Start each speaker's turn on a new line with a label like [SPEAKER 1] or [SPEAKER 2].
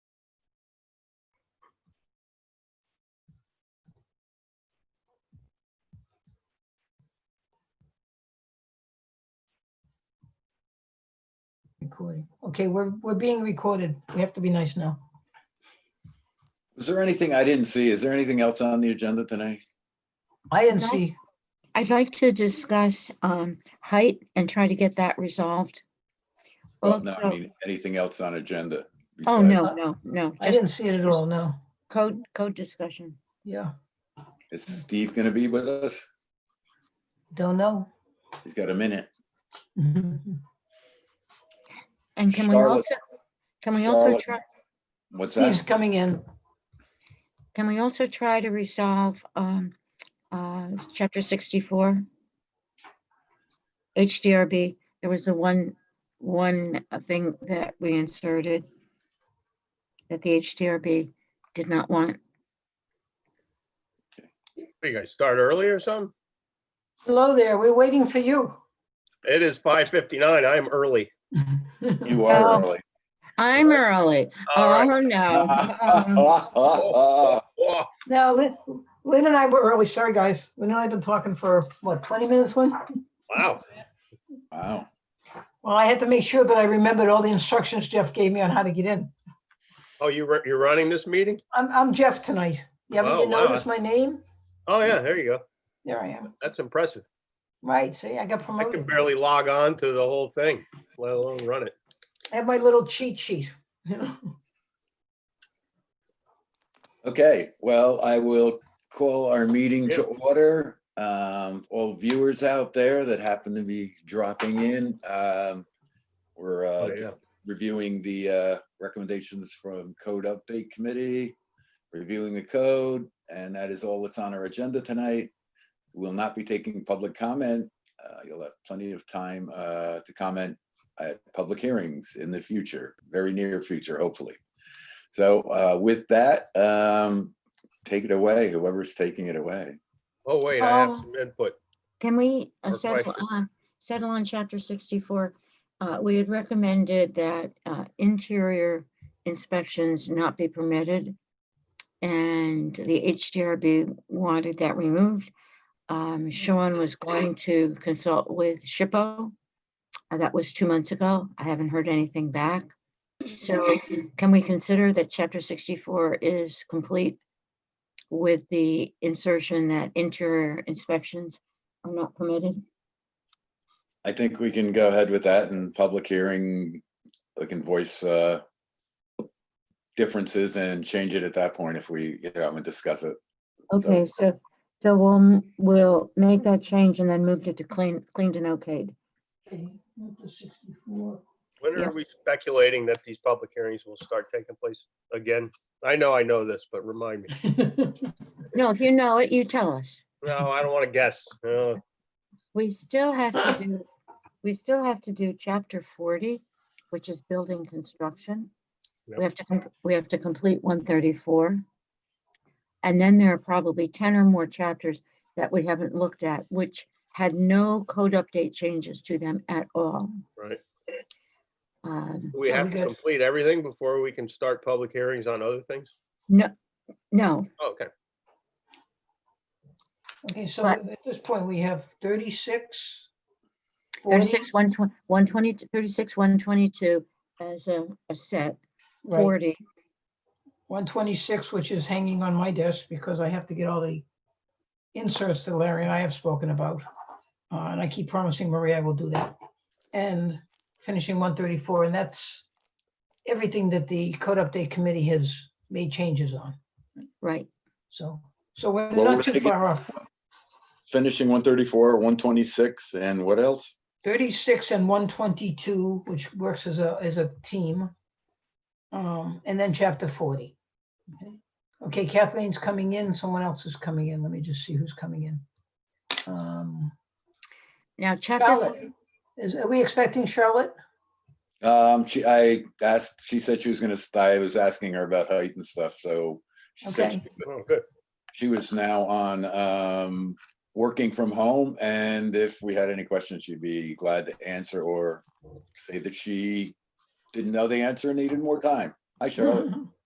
[SPEAKER 1] recording. Okay, we're, we're being recorded. We have to be nice now.
[SPEAKER 2] Is there anything I didn't see? Is there anything else on the agenda tonight?
[SPEAKER 1] I didn't
[SPEAKER 3] No.
[SPEAKER 1] see,
[SPEAKER 3] I'd like to discuss um height and try to get that resolved.
[SPEAKER 2] Well, no, I
[SPEAKER 3] Also,
[SPEAKER 2] mean, anything else on agenda?
[SPEAKER 3] oh,
[SPEAKER 2] besides-
[SPEAKER 3] no, no, no,
[SPEAKER 1] I
[SPEAKER 3] just
[SPEAKER 1] didn't see it at all, no.
[SPEAKER 3] code, code discussion.
[SPEAKER 1] Yeah,
[SPEAKER 2] Is Steve gonna be with us?
[SPEAKER 1] don't know.
[SPEAKER 2] He's got a minute.
[SPEAKER 3] And can we
[SPEAKER 2] Charlotte-
[SPEAKER 3] also, can we also
[SPEAKER 2] Charlotte-
[SPEAKER 3] try,
[SPEAKER 2] What's
[SPEAKER 1] Steve's
[SPEAKER 2] that?
[SPEAKER 1] coming in.
[SPEAKER 3] can we also try to resolve um uh chapter sixty-four? HDRB, there was the one, one uh, thing that we inserted that the HDRB did not want.
[SPEAKER 4] What, You guys start early or something?
[SPEAKER 1] Hello there, we're waiting for you.
[SPEAKER 4] It is five fifty-nine. I am early.
[SPEAKER 2] You are
[SPEAKER 3] No.
[SPEAKER 2] early. Oh.
[SPEAKER 3] I'm early.
[SPEAKER 4] All right.
[SPEAKER 3] Oh, no. Um,
[SPEAKER 2] Well,
[SPEAKER 4] Oh,
[SPEAKER 1] Now, Lynn, Lynn and I were early, sorry, guys. Lynn and I have been talking for, what, 20 minutes, Lynn?
[SPEAKER 4] Wow.
[SPEAKER 2] Wow.
[SPEAKER 1] Well, I had to make sure that I remembered all the instructions Jeff gave me on how to get in.
[SPEAKER 4] Oh, you, ru- you're running this meeting?
[SPEAKER 1] I'm, I'm Jeff tonight. You haven't
[SPEAKER 4] Oh,
[SPEAKER 1] even
[SPEAKER 4] wow.
[SPEAKER 1] noticed my name?
[SPEAKER 4] Oh, yeah, there you go.
[SPEAKER 1] There I am.
[SPEAKER 4] That's impressive.
[SPEAKER 1] Right, see, I got
[SPEAKER 4] I can
[SPEAKER 1] promoted.
[SPEAKER 4] barely log on to the whole thing, let alone run it.
[SPEAKER 1] I have my little cheat sheet, you know?
[SPEAKER 2] Okay, well, I will call our meeting to
[SPEAKER 4] Yeah.
[SPEAKER 2] order. Um, all viewers out there that happen to be dropping in, um, we're, uh,
[SPEAKER 4] Oh, yeah.
[SPEAKER 2] reviewing the uh, recommendations from Code Update Committee, reviewing the code, and that is all that's on our agenda tonight. We'll not be taking public comment. Uh, You'll have plenty of time uh, to comment at public hearings in the future, very near future, hopefully. So uh, with that, um, take it away, whoever's taking it away.
[SPEAKER 4] Oh, wait, I have
[SPEAKER 3] Um,
[SPEAKER 4] some input.
[SPEAKER 3] Can we uh,
[SPEAKER 4] Or
[SPEAKER 3] settle
[SPEAKER 4] question.
[SPEAKER 3] on, settle on chapter sixty-four? Uh, we had recommended that uh, interior inspections not be permitted. And the HDRB wanted that removed. Um, Sean was going to consult with SHPO. Uh, That was two months ago. I haven't heard anything back. So can we consider that chapter sixty-four is complete? With the insertion that interior inspections are not permitted.
[SPEAKER 2] I think we can go ahead with that in public hearing. We can voice uh, differences and change it at that point if we, you know, and discuss it. So-
[SPEAKER 3] Okay, so, so we'll, m- we'll make that change and then moved it to clean, cleaned and okayed.
[SPEAKER 1] Okay, not the 64.
[SPEAKER 4] When
[SPEAKER 3] yeah.
[SPEAKER 4] are we speculating that these public hearings will start taking place again? I know I know this, but remind me.
[SPEAKER 3] No, if you know it, you tell us.
[SPEAKER 4] No, I don't want to guess. No.
[SPEAKER 3] We still have to do, we still have to do chapter forty, which is building construction.
[SPEAKER 4] Yep.
[SPEAKER 3] We have to, com- we have to complete one thirty-four. And then there are probably ten or more chapters that we haven't looked at, which had no code update changes to them at all.
[SPEAKER 4] Right.
[SPEAKER 3] Um,
[SPEAKER 4] Do We
[SPEAKER 1] So we
[SPEAKER 4] have to
[SPEAKER 1] got-
[SPEAKER 4] complete everything before we can start public hearings on other things?
[SPEAKER 3] no,
[SPEAKER 4] Okay,
[SPEAKER 1] Okay, so
[SPEAKER 3] But-
[SPEAKER 1] at this point, we have 36.
[SPEAKER 3] 36,
[SPEAKER 1] 40,
[SPEAKER 3] 120, 120, 36, 122 as a, a set,
[SPEAKER 1] right,
[SPEAKER 3] 40.
[SPEAKER 1] 126, which is hanging on my desk because I have to get all the inserts that Larry and I have spoken about. Uh, And I keep promising Maria I will do that. And finishing 134, and that's everything that the code update committee has made changes on.
[SPEAKER 3] Right,
[SPEAKER 1] So, so we're
[SPEAKER 2] Well, we're
[SPEAKER 1] not too
[SPEAKER 2] gonna get-
[SPEAKER 1] far off.
[SPEAKER 2] Finishing one thirty-four, one twenty-six, and what else?
[SPEAKER 1] 36 and 122, which works as a, as a team. Um, And then chapter 40. Okay. Okay, Kathleen's coming in, someone else is coming in. Let me just see who's coming in. Um,
[SPEAKER 3] now chapter,
[SPEAKER 1] Charlotte,
[SPEAKER 3] fo-
[SPEAKER 1] is, are we expecting Charlotte?
[SPEAKER 2] Um, she, I asked, she said she was gonna, st- I was asking her about height and stuff, so she said
[SPEAKER 1] Okay.
[SPEAKER 2] she-
[SPEAKER 4] oh, good.
[SPEAKER 2] she was now on, um, working from home, and if we had any questions, she'd be glad to answer or say that she didn't know the answer and needed more time. Hi, Charlotte.